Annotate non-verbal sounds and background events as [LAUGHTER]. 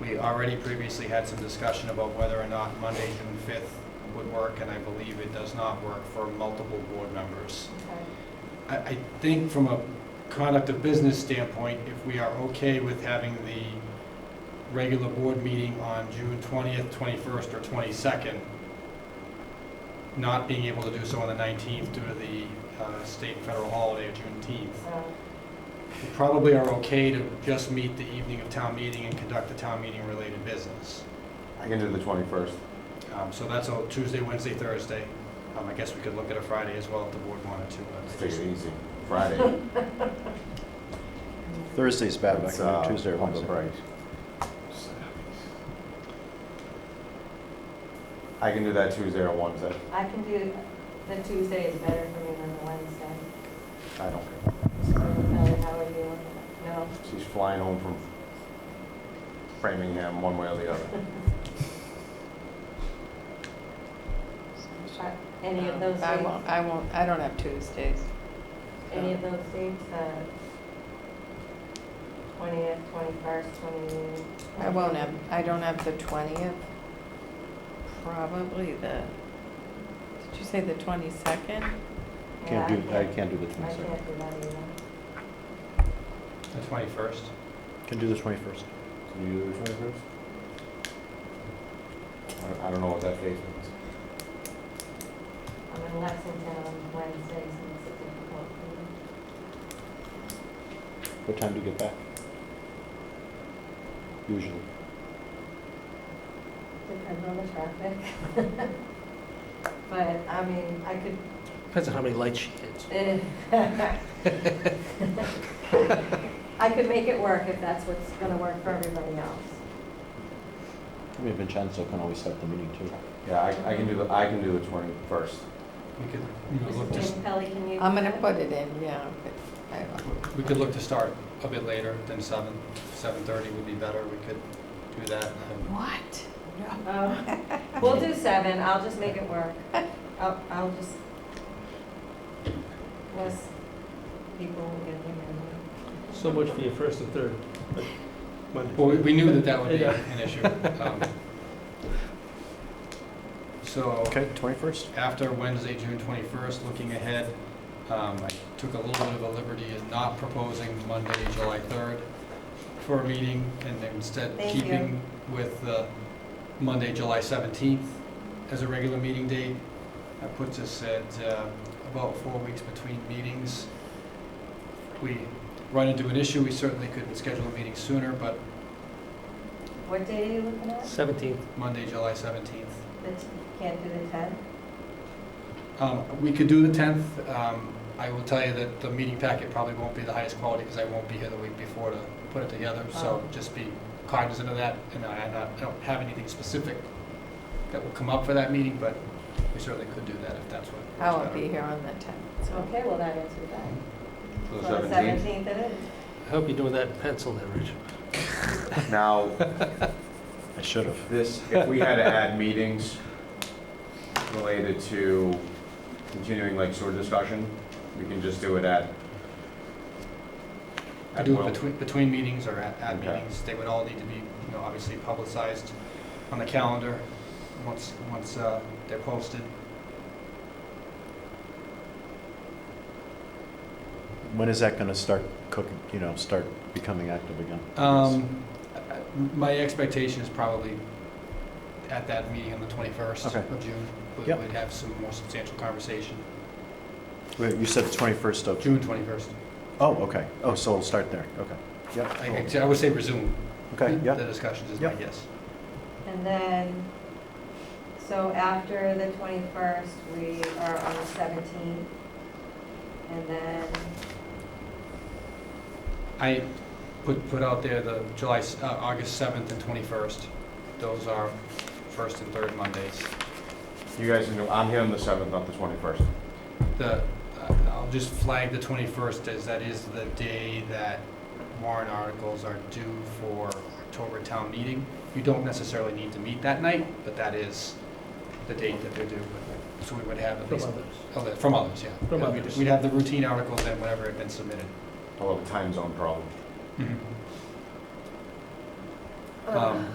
We already previously had some discussion about whether or not Monday, June fifth would work, and I believe it does not work for multiple board members. I, I think from a conduct of business standpoint, if we are okay with having the regular board meeting on June twentieth, twenty-first, or twenty-second, not being able to do so on the nineteenth due to the uh, state and federal holiday of Juneteenth, we probably are okay to just meet the evening of town meeting and conduct the town meeting related business. I can do the 21st. Um, so that's a Tuesday, Wednesday, Thursday. Um, I guess we could look at a Friday as well if the board wanted to. Let's but- take it easy. Friday. Thursday's [LAUGHS] bad, but I It's, can uh, do Tuesday or on the Wednesday. break. I can do that Tuesday or Wednesday. I can do, the Tuesday is better for me than the Wednesday. I don't care. Ellie, how are you? No? She's flying home from Framingham one way or [LAUGHS] the other. Uh, Any of those Um, I dates, uh, won't, I won't, I don't have Tuesdays. any of those dates, uh, twentieth, twenty-first, twenty? I won't have, I don't have the twentieth. Probably the, did you say the twenty-second? Yeah, Can't do, I can't do the I can't 22nd. do that either. The twenty-first? Can do the 21st. Can you do the 21st? I- I don't know what that date is. I'm in Lexington on Wednesday, so it's difficult for me. What time do you get back? Usually. Depends on the traffic. [LAUGHS] But, I mean, I could, Depends on how many lights she hits. eh. [LAUGHS] I could make it work if that's what's gonna work for everybody else. I mean, Vincenzo can always start the meeting too. Yeah, I, I can do the, I can do the 21st. We could, you know, look to, Mrs. Pelly, can you? I'm do gonna that? put it in, yeah. but I won't. we could look to start a bit later than seven. Seven-thirty would be better, we could do that. Um, What? No. Oh. We'll do seven, I'll just make it [LAUGHS] work. I'll, I'll just, less people will get here. So much for your first and third. Well, we- we knew that that would be an issue. Um, So, Okay, 21st? after Wednesday, June twenty-first, looking ahead, um, I took a little bit of a liberty in not proposing Monday, July third for a meeting, and instead Thank you. keeping with the Monday, July seventeenth as a regular meeting date. That puts us at, uh, about four weeks between meetings. If we run into an issue, we certainly could schedule a meeting sooner, but What day are you looking at? Seventeenth. Monday, July seventeenth. The t- Can't do the tenth? Um, We could do the 10th. Um, I will tell you that the meeting packet probably won't be the highest quality because I won't be here the week before to put it together. So Oh. just be cognizant of that. And I I'm not- I don't have anything specific that will come up for that meeting, but we certainly could do that if that's what. I works won't better. be here on the tenth, so. Okay, well, that answers that. The So the 17th. Seventeenth it is. I hope you're doing that in pencil there, Rich. Now, I should have. this, if we had to add meetings related to continuing like sewer discussion, we can just do it at. Could at do will. it between, between meetings or at, at Okay. meetings. They would all need to be, you know, obviously publicized on the calendar once, once uh, they're posted. When is that gonna start cooking, you know, start becoming active again? Um, I- I- my expectation is probably at that meeting on the 21st Okay. of June, we- Yep. we'd have some more substantial conversation. Wait, you said the 21st of, June 21st. oh, okay. Oh, so it'll start there, okay. Yep. I- cool. I I would say resume Okay, yeah. the discussions is my Yep. guess. And then, so after the 21st, we are on the 17th. And then, I put, put out there the July, s- uh, August 7th and 21st. Those are first and third Mondays. You guys can do, I'm here on the seventh, not the twenty-first. The, uh, I'll just flag the 21st as that is the day that warrant articles are due for October town meeting. You don't necessarily need to meet that night, but that is the date that they're due. So we would have at From least, others. oh, that- from others, yeah. From We'd- others. We'd have the routine articles and whatever had been submitted. Well, the time zone problem. Um,